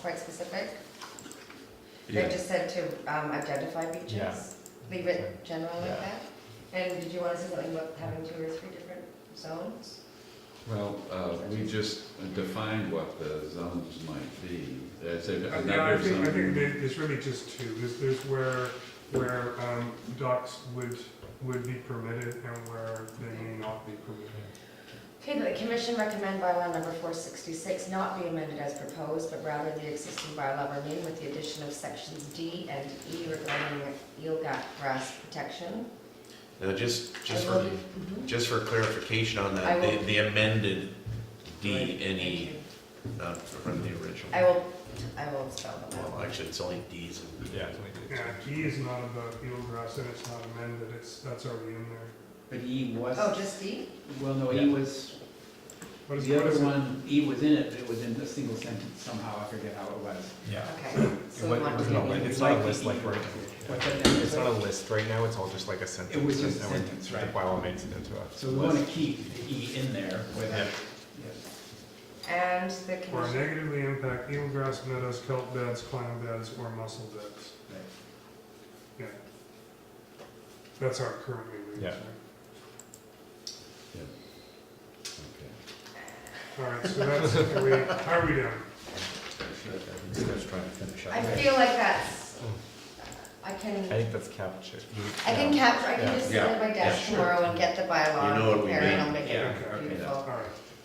quite specific. They just said to um, identify Yeah. beaches, leave it general like Yeah. that. And did you want to say something about having two or three different zones? Well, uh, we just defined what the zones might be. That's a- Uh, Yeah, I another think, I think zone. there- there's really just two, there's, there's where, where um, docks would, would be permitted and where they may not be permitted. Okay, the commission recommend bylaw number four sixty-six not be amended as proposed, but rather the existing bylaw remain with the addition of sections D and E regarding eelgrass grass protection. Now, just, just I will for, be- mhm. just for clarification on I that, will- the- the amended D Right, and thank E, you. not from the original. I will, I will spell them out. Well, actually, it's only Ds and Yeah. Yeah, E is not about eelgrass and it's not amended, it's, that's already in there. But E was, Oh, just D? well, no, Yeah. E was, What is, the what other is it? one, E was in it, but it was in a single sentence somehow, I forget how it was. Yeah. Okay, so we want wasn't a to. list. It's not a list like right now. What's that name? It's not a list right now, it's all just like a sentence. It was just a and when sentence, right. The bylaw makes it into a. So we want to keep the E in there with Yeah. it. And the Or commission, negatively impact eelgrass meadows, kelp beds, clam beds, or mussel beds. Yeah. That's how it currently reads. Yeah. right? Okay. All right, so that's, are we, how are we doing? I feel like that's, I can, I think that's captured. I can capture, I can just sit Yeah. at my Yeah, desk sure. tomorrow and get the bylaw You know and what we prepare it, and I'll mean. make Yeah, it okay. beautiful. All right,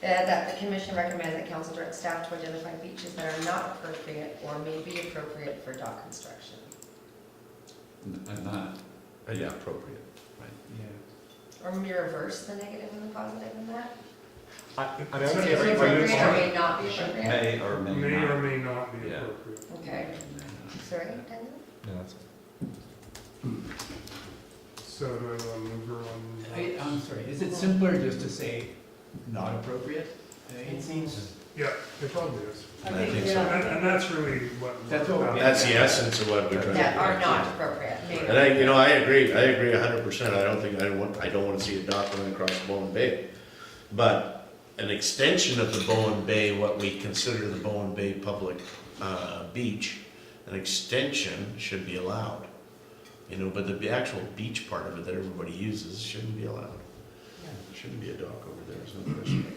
Uh, That the commission recommends that council direct staff to identify beaches that are not appropriate or may be appropriate for dock construction. N- uh, Not, uh, yeah, appropriate, right. Yeah. Or may reverse the negative and the positive in that? I, I mean, I would It's say May right, every, right, every it's appropriate or time, right. may not be appropriate? May or may or may not be Yeah. appropriate. Okay, sorry, Daniel? no, that's, So do I want to move her on? I, um, I'm sorry, is it simpler just to say not appropriate? It seems. Yeah, it probably is. I think so. And, and that's really what. That's what we- That's the essence of what we're trying to. That are not appropriate, maybe. And I, you know, I agree, I agree a hundred percent, I don't think, I don't want, I don't wanna see a dock running across Bowen Bay. But an extension of the Bowen Bay, what we consider the Bowen Bay public, uh, beach, an extension should be allowed. You know, but the the actual beach part of it that everybody uses shouldn't be allowed. There Shouldn't be a dock over there, there's no question.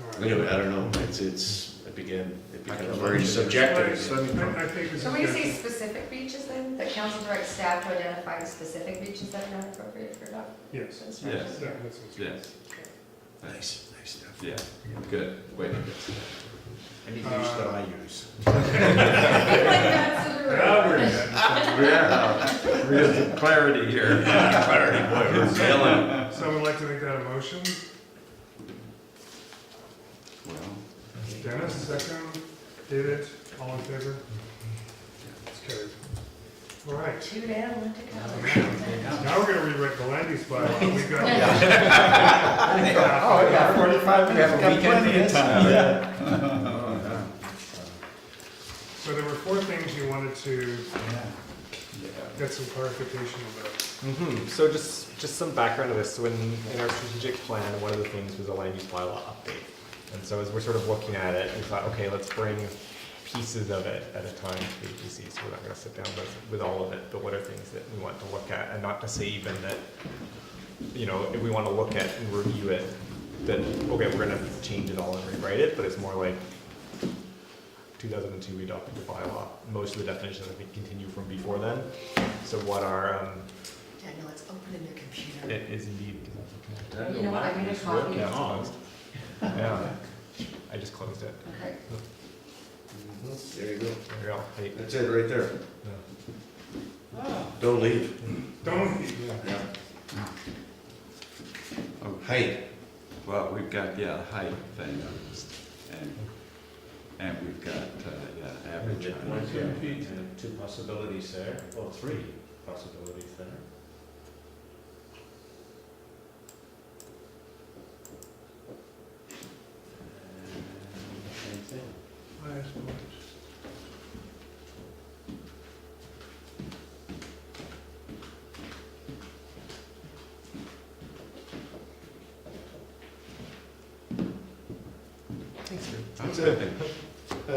All right. Anyway, I don't know, it's, it's, it began, it I can becomes very imagine. subjective. I, I think this is. So we good. say specific beaches then, that council directs staff to identify specific beaches that are not appropriate for dog Yes. construction? Yeah, that's it. Yes, Nice, nice stuff. yeah, good, wait. Any Uh, beach that I use. Now we're good. Yeah, real clarity here. Clarity, boy, we're failing. Someone like to make that a motion? Well, Dennis, second. David, all in favor? It's carried. All right. Two down, one to Yeah. go. Now we're gonna rewrite the land use bylaw. We've got. Oh, yeah, forty-five minutes, got plenty of time. So there were four things you wanted to Yeah. get some clarification about. hmm so just, just some background to this, so in, in our strategic plan, one of the things was a land use bylaw update. And so as we're sort of looking at it, we thought, okay, let's bring pieces of it at a time to the APC, so we're not gonna sit down with, with all of it, but what are things that we want to look at, and not to say even that, you know, if we wanna look at and review it, then, okay, we're gonna change it all and rewrite it, but it's more like, two thousand and two, we adopted the bylaw, most of the definitions, I think, continue from before then, so what are, um, Daniel, it's open in your computer. it is indeed. You know what, I made a copy. Yeah, it's closed. Yeah, I just closed it. Okay. There you go. There you go. Hey, That's it, right there. no. Don't leave. Don't, Yeah. Height. Oh, Well, we've got, yeah, the height thing, and, and we've got, uh, yeah, average height. Two possibilities there, or three possibilities there. And Same thing. That's it.